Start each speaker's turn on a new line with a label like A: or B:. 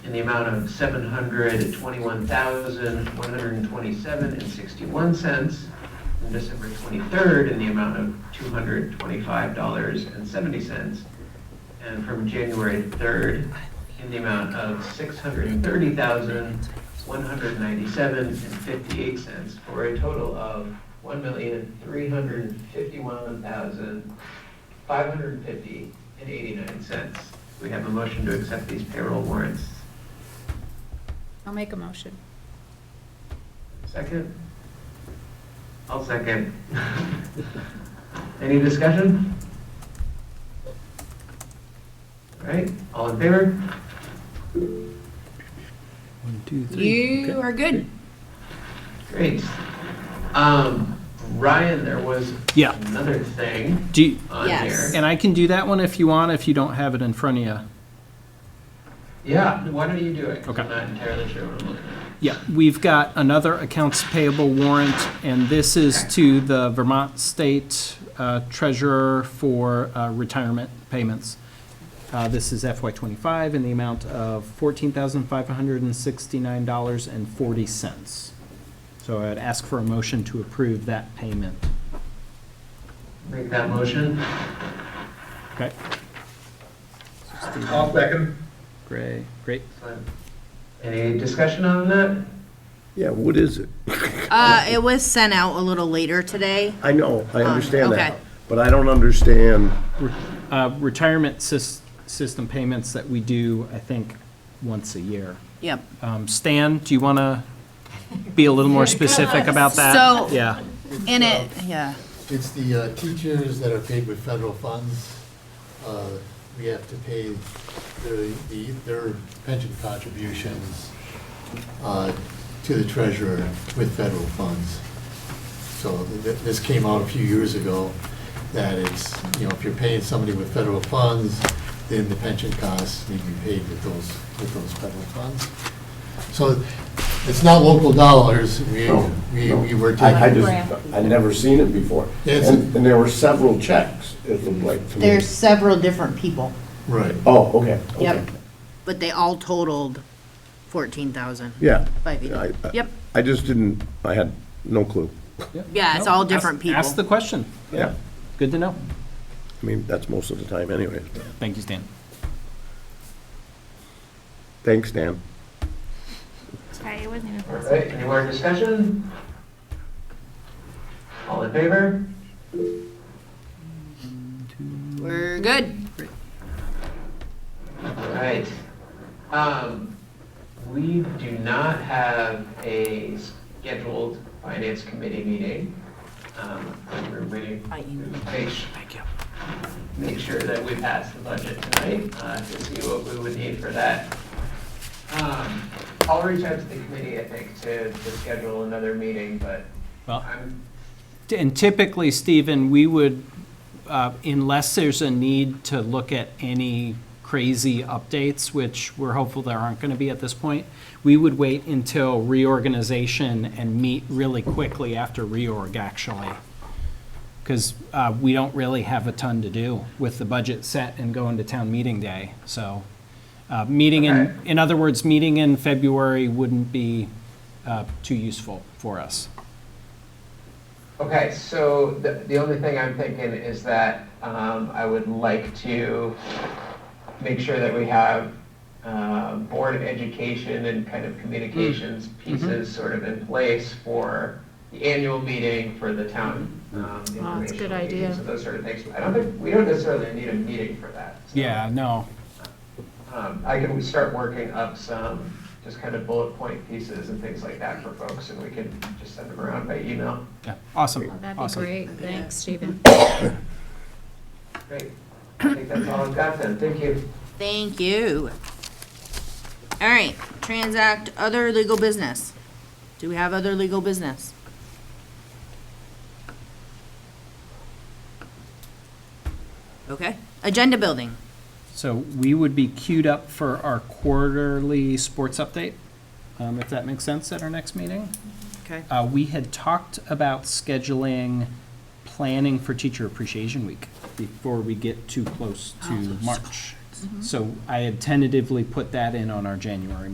A: in the amount of seven hundred twenty-one thousand, one hundred and twenty-seven and sixty-one cents, and December twenty-third in the amount of two hundred twenty-five dollars and seventy cents, and from January third in the amount of six hundred thirty thousand, one hundred ninety-seven and fifty-eight cents, for a total of one million, three hundred fifty-one thousand, five hundred fifty and eighty-nine cents. We have a motion to accept these payroll warrants.
B: I'll make a motion.
A: Second? I'll second. Any discussion? All right, all in favor?
C: One, two, three.
B: You are good.
A: Great. Um, Ryan, there was
C: Yeah.
A: another thing
C: Do you-
A: on here.
B: Yes.
C: and I can do that one if you want, if you don't have it in front of you.
A: Yeah, why don't you do it? 'Cause
C: Okay.
A: I'm not entirely sure what I'm looking at.
C: Yeah, we've got another accounts payable warrant, and this is to the Vermont State uh, Treasurer for uh, retirement payments. Uh, This is FY twenty-five in the amount of fourteen thousand five hundred and sixty-nine dollars and forty cents. So I'd ask for a motion to approve that payment.
A: Make that motion.
C: Okay,
D: I'll second.
C: great, great.
A: Any discussion on that?
E: Yeah, what is it?
F: Uh, it was sent out a little later today.
E: I know, I
F: Um,
E: understand
F: okay.
E: that, but I don't understand,
C: Re- uh, Retirement sys- system payments that we do, I think, once a year.
F: Yep.
C: Um, Stan, do you want to be a little more specific about that?
F: So-
C: Yeah,
F: And it, yeah,
G: It's the uh, teachers that are paid with federal funds. Uh, We have to pay their, the- their pension contributions uh, to the treasurer with federal funds. So th- th- this came out a few years ago, that it's, you know, if you're paying somebody with federal funds, then the pension costs need to be paid with those, with those federal funds. So it's not local dollars, we, we we were taking.
E: I, I just, I'd never seen it before.
G: Yes.
E: And, and there were several checks, it looked like to me.
F: there's several different people.
G: Right.
E: Oh, okay, okay.
F: Yep. But they all totaled fourteen thousand.
E: Yeah.
F: Five
E: Yeah,
F: eighty.
E: I- I-
F: Yep.
E: I just didn't, I had no clue.
F: Yeah, it's all different
C: Ask- Ask the
F: people.
C: question.
E: Yeah,
C: Good to know.
E: I mean, that's most of the time anyway.
C: Thank you, Stan.
E: Thanks, Dan.
H: Sorry, it wasn't even
A: All
H: possible.
A: right, any more discussion? All in favor?
F: We're good.
A: All right. Um, we do not have a scheduled finance committee meeting. Um, we're waiting
F: I emailed.
A: to make sure
F: Thank you.
A: make sure that we pass the budget tonight, uh, to see what we would need for that. Um, I'll reach out to the committee, I think, to, to schedule another meeting, but
C: Well,
A: I'm,
C: T- And typically, Stephen, we would, uh, unless there's a need to look at any crazy updates, which we're hopeful there aren't going to be at this point, we would wait until reorganization and meet really quickly after reorg, actually. Because we don't really have a ton to do with the budget set and going to town meeting day. So, uh, meeting
A: Okay.
C: in, in other words, meeting in February wouldn't be uh, too useful for us.
A: okay, so the, the only thing I'm thinking is that, um, I would like to make sure that we have, uh, board education and kind of communications
B: Mm-hmm.
A: pieces sort of in place for the annual meeting for the town, um,
B: Oh, that's a good
A: informational meeting,
B: idea.
A: So those sort of things. I don't think, we don't necessarily need a meeting for that. so.
C: Yeah, no,
A: Um, I can start working up some just kind of bullet point pieces and things like that for folks, and we can just send them around by email.
C: Yeah, awesome,
B: Oh, That'd be
C: awesome.
B: great. Thanks, Stephen.
A: Great. I think that's all I've got then. Thank you.
F: Thank you. All right, transact other legal business. Do we have other legal business? Okay, agenda building.
C: So we would be queued up for our quarterly sports update, um, if that makes sense, at our next meeting.
F: Okay.
C: Uh, We had talked about
B: Oh,
C: scheduling planning for Teacher Appreciation Week before we get too close to March.
B: Mm-hmm.
C: So I had tentatively put that in on our January